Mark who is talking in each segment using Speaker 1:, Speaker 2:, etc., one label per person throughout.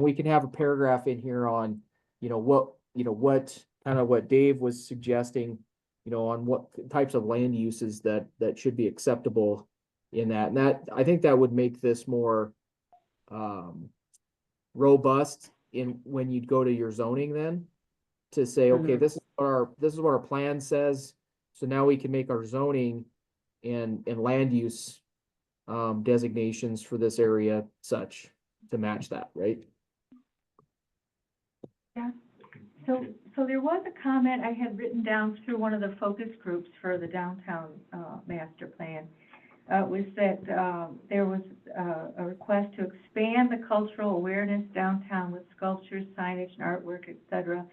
Speaker 1: we can have a paragraph in here on, you know, what, you know, what, kind of what Dave was suggesting, you know, on what types of land uses that, that should be acceptable in that. And that, I think that would make this more um, robust in, when you'd go to your zoning then, to say, okay, this is what our, this is what our plan says. So now we can make our zoning and, and land use um, designations for this area such to match that, right?
Speaker 2: So, so there was a comment I had written down through one of the focus groups for the downtown, uh, master plan. Uh, was that, um, there was, uh, a request to expand the cultural awareness downtown with sculptures, signage, and artwork, et cetera.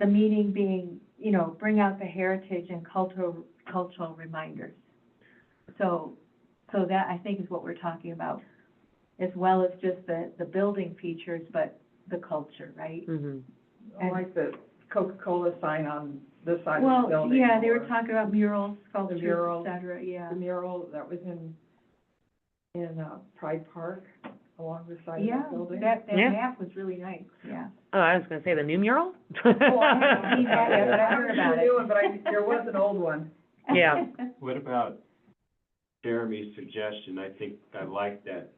Speaker 2: The meaning being, you know, bring out the heritage and cultural, cultural reminders. So, so that I think is what we're talking about, as well as just the, the building features, but the culture, right?
Speaker 3: Mhm.
Speaker 2: And-
Speaker 4: Like the Coca-Cola sign on this side of the
Speaker 2: Well,
Speaker 4: building.
Speaker 2: yeah, they were
Speaker 4: or
Speaker 2: talking about murals, sculptures, et
Speaker 4: murals.
Speaker 2: cetera, yeah.
Speaker 4: The mural that was in, in uh, Pride Park along the side
Speaker 2: Yeah,
Speaker 4: of the building.
Speaker 2: that, that
Speaker 3: Yeah.
Speaker 2: map was really nice, yeah.
Speaker 3: Oh, I was gonna say the new mural?
Speaker 2: Well, I haven't seen that yet, but I
Speaker 4: I'm
Speaker 2: heard
Speaker 4: sure
Speaker 2: about
Speaker 4: new
Speaker 2: it.
Speaker 4: one, But I, there was an old one.
Speaker 3: Yeah.
Speaker 5: What about Jeremy's suggestion? I think I like that,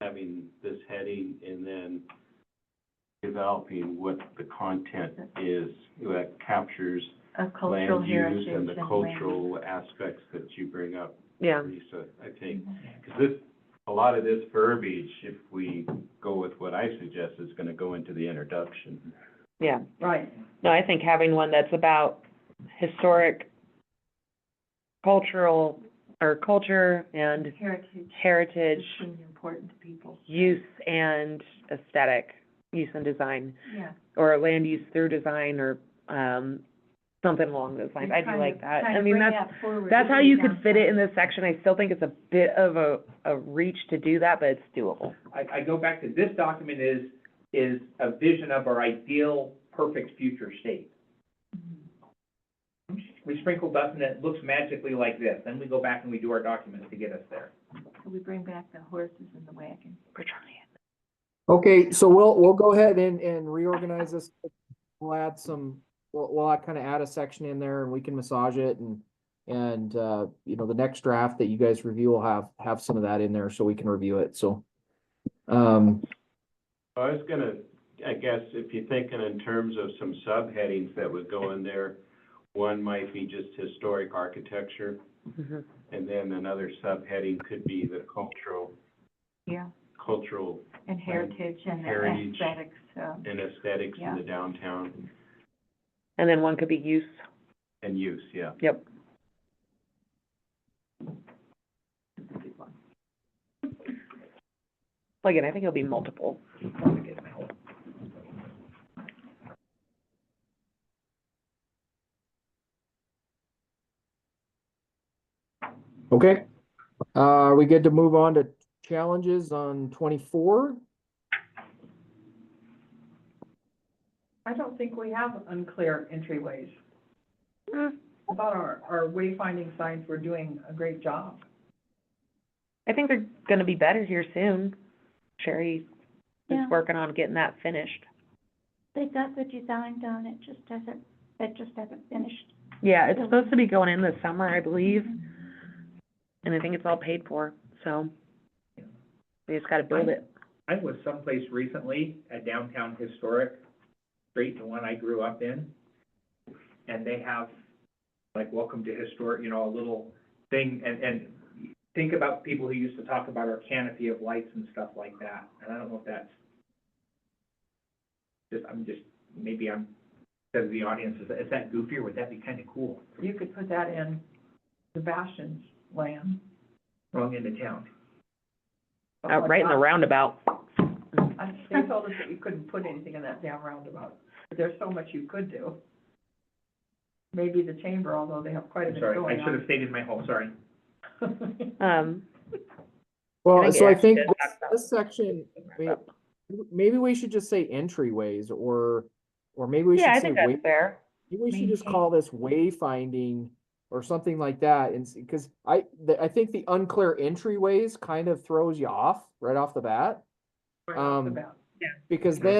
Speaker 5: having this heading and then developing what the content is that captures
Speaker 2: A cultural
Speaker 5: land
Speaker 2: heritage
Speaker 5: use
Speaker 2: and
Speaker 5: and
Speaker 2: land.
Speaker 5: the cultural aspects that you bring up,
Speaker 3: Yeah,
Speaker 5: Lisa, I think. Because this, a lot of this verbiage, if we go with what I suggest, is going to go into the introduction.
Speaker 3: yeah.
Speaker 4: Right.
Speaker 3: No, I think having one that's about historic, cultural, or culture and
Speaker 2: Heritage is
Speaker 3: heritage,
Speaker 2: really important to people,
Speaker 3: use and aesthetic, use and design,
Speaker 2: yeah.
Speaker 3: or land use through design, or, um, something along those lines.
Speaker 2: And
Speaker 3: I do
Speaker 2: trying
Speaker 3: like
Speaker 2: to-
Speaker 3: that.
Speaker 2: trying
Speaker 3: I
Speaker 2: to
Speaker 3: mean,
Speaker 2: bring
Speaker 3: that's,
Speaker 2: that forward
Speaker 3: that's
Speaker 2: to
Speaker 3: how
Speaker 2: the
Speaker 3: you could fit it in
Speaker 2: downtown.
Speaker 3: this section. I still think it's a bit of a, a reach to do that, but it's doable.
Speaker 6: I, I go back to this document is, is a vision of our ideal, perfect future state. We sprinkle dust and it looks magically like this, then we go back and we do our documents to get us there.
Speaker 2: So we bring back the horses and the wagon.
Speaker 3: We're trying
Speaker 1: Okay, so we'll, we'll go ahead and, and reorganize this. We'll add some, we'll, we'll kind of add a section in there and we can massage it and, and, uh, you know, the next draft that you guys review will have, have some of that in there so we can review it, so. Um,
Speaker 5: I was gonna, I guess, if you're thinking in terms of some subheadings that would go in there, one might be just historic architecture,
Speaker 2: Mm-hmm.
Speaker 3: it.
Speaker 5: and then another subheading could be the cultural,
Speaker 2: Yeah,
Speaker 5: cultural
Speaker 2: and heritage and the
Speaker 5: Heritage.
Speaker 2: aesthetics, um,
Speaker 5: and aesthetics in the downtown
Speaker 3: And then one could be use,
Speaker 5: and use, yeah.
Speaker 3: yep.
Speaker 2: is a good one.
Speaker 3: Like, and I think it'll be multiple.
Speaker 1: okay, uh, are we good to move on to challenges on twenty-four?
Speaker 4: I don't think we have unclear entryways.
Speaker 3: Hmm.
Speaker 4: About our, our wayfinding signs, we're doing a great job.
Speaker 3: I think they're gonna be better here soon. Sherry is
Speaker 7: Yeah.
Speaker 3: working on getting that finished.
Speaker 7: They got the design done, it just hasn't, it just hasn't finished.
Speaker 3: Yeah, it's supposed to be going in this summer, I believe, and I think it's all paid for, so they just gotta build it.
Speaker 6: I was someplace recently, a downtown historic street, the one I grew up in, and they have, like, welcome to historic, you know, a little thing, and, and think about people who used to talk about our canopy of lights and stuff like that, and I don't know if that's, just, I'm just, maybe I'm, because the audience is, is that goofy, or would that be kind of cool,
Speaker 4: You could put that in Sebastian's land.
Speaker 6: wrong end of town?
Speaker 3: Uh, right in the roundabout.
Speaker 4: I They told us that you couldn't put anything in that damn roundabout, but there's so much you could do. Maybe the chamber, although they have quite a
Speaker 6: I'm
Speaker 4: bit
Speaker 6: sorry,
Speaker 4: going
Speaker 6: I should have
Speaker 4: on.
Speaker 6: stayed in my home, sorry.
Speaker 3: Um, I
Speaker 1: Well,
Speaker 3: think
Speaker 1: so
Speaker 3: it
Speaker 1: I
Speaker 3: actually
Speaker 1: think this-
Speaker 3: does talk about-
Speaker 1: this section, may- maybe we should just say entryways or, or maybe we should
Speaker 3: yeah, I
Speaker 1: say
Speaker 3: think
Speaker 1: way-
Speaker 3: that's fair.
Speaker 1: Maybe we should just
Speaker 2: maintain-
Speaker 1: call this wayfinding or something like that, and, because I, the- I think the unclear entryways kind of throws you off right off the bat.
Speaker 4: Right off the
Speaker 1: um,
Speaker 4: bat.
Speaker 1: Because
Speaker 6: Mhm.
Speaker 1: then